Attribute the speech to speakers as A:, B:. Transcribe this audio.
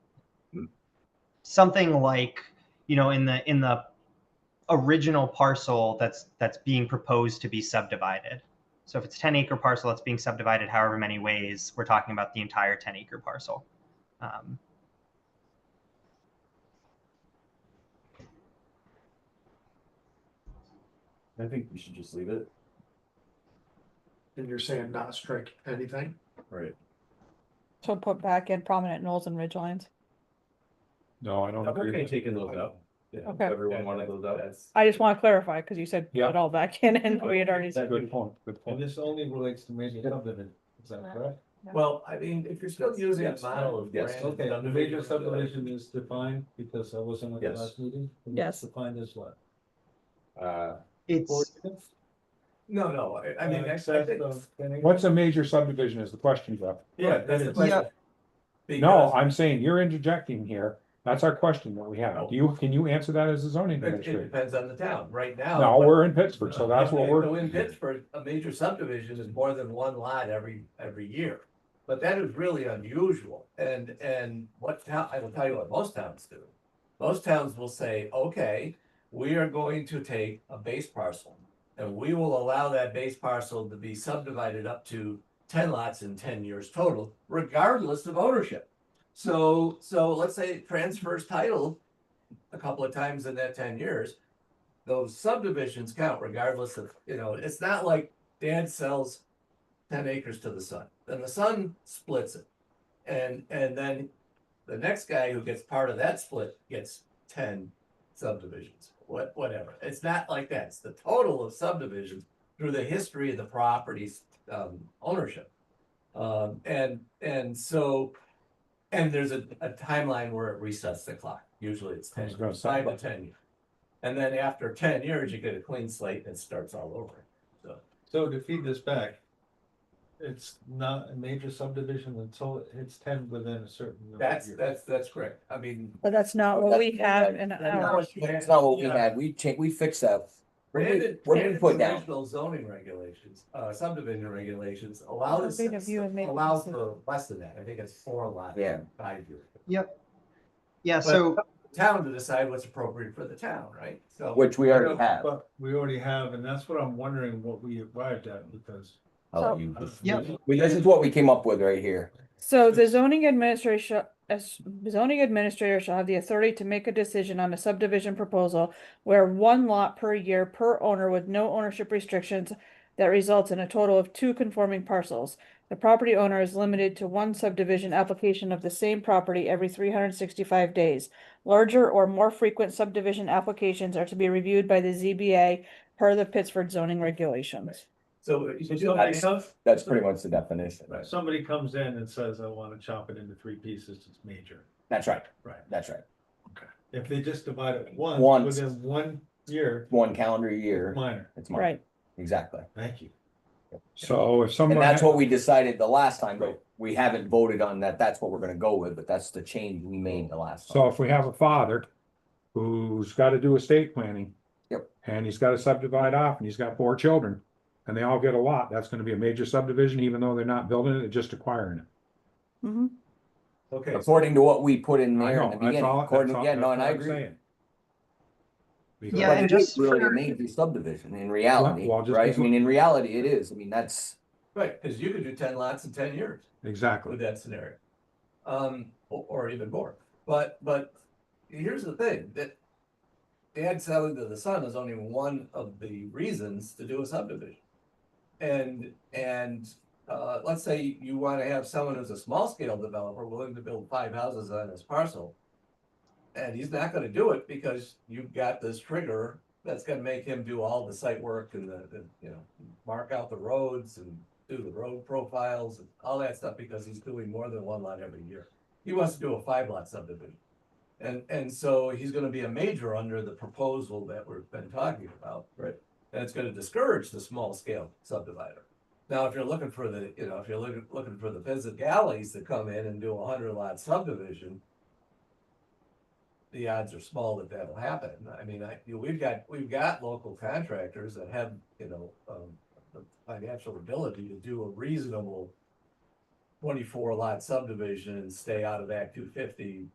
A: something like you know in the in the original parcel that's that's being proposed to be subdivided. So if it's 10 acre parcel that's being subdivided however many ways, we're talking about the entire 10 acre parcel. Um,
B: I think we should just leave it.
C: And you're saying not strike anything?
B: Right.
D: So put back in prominent knolls and ridge lines.
E: No, I don't
B: I'm
E: agree.
B: okay
E: with that.
B: taking those out. Yeah,
D: Okay.
B: everyone wanted those
F: Oh,
B: out.
D: I just want to clarify, because you said
E: Yeah.
D: put it all back in and we had already
E: That's a
D: said,
E: Good point, good
F: And
E: point.
F: this only relates to major subdivision, is that correct?
B: Well, I mean, if you're still using a
F: Yes,
B: model of.
F: Yes,
B: grand
F: okay, the
B: subdivision,
F: major subdivision is defined, because I wasn't at the
B: Yes.
F: last meeting. and it's
D: Yes.
F: Defined as what?
B: Uh,
A: it's
B: no, no, I- I mean, I-
F: Uh,
B: I
F: excess
B: think-
F: of ten
E: What's a
F: acres?
E: major subdivision is the question, Jeff.
B: yeah, that's the
F: Yeah.
B: question.
E: No,
B: Because
E: I'm saying you're interjecting here. That's our question that we have. Do you, can you answer that as a zoning
B: It it
E: administrator?
B: depends on the town, right now.
E: No,
B: what-
E: we're in Pittsburgh, so that's what
B: Uh, So
E: we're,
B: in Pittsburgh, a major subdivision is more than one lot every, every year. But that is really unusual, and, and what town, I will tell you what most towns do. Most towns will say, okay, we are going to take a base parcel. And we will allow that base parcel to be subdivided up to ten lots in ten years total, regardless of ownership. So, so let's say it transfers title a couple of times in that ten years those subdivisions count regardless of, you know, it's not like dad sells ten acres to the son, then the son splits it. And, and then the next guy who gets part of that split gets ten subdivisions, what, whatever. It's not like that. It's the total of subdivisions through the history of the property's, um, ownership. Um, and, and so, and there's a, a timeline where it resets the clock. Usually it's
E: I
B: ten,
E: was gonna say.
B: five to ten years. And then after ten years, you get a clean slate and it starts all over.
F: So to feed this back, it's not a major subdivision until it's ten within a certain. number of
B: That's,
F: years.
B: that's, that's correct. I mean.
D: but that's not what
G: That's-
D: we have in
B: that's not
D: our.
B: what you
G: That's
B: had.
G: not what we
B: Yeah.
G: had, we changed, we fixed that. We're gonna-
B: Brandon-
G: we're gonna
B: Brandon's
G: put down,
B: Original zoning regulations, uh, subdivision regulations allow this,
D: Bit of you and make
B: allows
D: decisions.
B: for less than that. I think it's four lots.
G: Yeah.
B: Five years.
A: yeah so
B: Town to decide what's appropriate for the town, right? So.
G: which we already have.
F: But we already have, and that's what I'm wondering what we arrived at, because.
G: I'll let
D: So-
G: you-
A: Yeah.
G: We- This is what we came up with right here.
D: So the zoning administration, as zoning administrator shall have the authority to make a decision on a subdivision proposal where one lot per year per owner with no ownership restrictions that results in a total of two conforming parcels. The property owner is limited to one subdivision application of the same property every three hundred and sixty-five days. Larger or more frequent subdivision applications are to be reviewed by the ZBA per the Pittsford zoning regulations.
B: So if you
F: So
B: do
F: somebody
B: that,
G: That's-
F: comes,
G: That's pretty much the definition.
B: Right.
F: somebody comes in and says, I wanna chop it into three pieces, it's major.
G: That's right.
F: Right.
G: That's right.
F: If they just divide it once,
G: Once.
F: within one year,
G: One calendar year,
F: minor,
G: it's mine,
D: Right,
G: exactly.
F: thank you.
E: so if someone.
G: And that's
E: had-
G: what we decided the last time,
B: Right.
G: but we haven't voted on that, that's what we're gonna go with, but that's the change we made the last
E: So
G: time.
E: if we have a father who's got to do estate planning.
G: Yep.
E: And he's got to subdivide off and he's got four children and they all get a lot, that's going to be a major subdivision, even though they're not building it, they're just acquiring it.
D: hmm
B: okay,
G: According to what we put in
E: I
G: there
E: know,
G: in the
E: that's
G: beginning,
E: all- that's
G: according,
E: all-
G: yeah, no,
E: that's
G: and
E: all
G: I
E: I'm
G: agree.
E: saying.
G: But
E: Because-
A: Yeah, and
G: it is
A: just
G: Really a
A: for-
G: major subdivision in reality,
E: well, just
G: right? I
E: because-
G: mean, in reality, it is, I mean, that's,
B: right, cause you could do ten lots in ten years.
E: Exactly.
B: with that scenario. Um, or, or even more, but, but here's the thing, that dad selling to the son is only one of the reasons to do a subdivision. And, and, uh, let's say you wanna have someone who's a small scale developer willing to build five houses on his parcel. And he's not gonna do it because you've got this trigger that's gonna make him do all the site work and the, the, you know, mark out the roads and do the road profiles and all that stuff because he's doing more than one lot every year. He wants to do a five lot subdivision. And, and so he's gonna be a major under the proposal that we've been talking about. Right. And it's gonna discourage the small scale subdivider. Now, if you're looking for the, you know, if you're looking, looking for the physicalities to come in and do a hundred lot subdivision, the odds are small that that'll happen. I mean, I, you know, we've got, we've got local contractors that have, you know, um, the financial ability to do a reasonable twenty-four lot subdivision and stay out of Act two fifty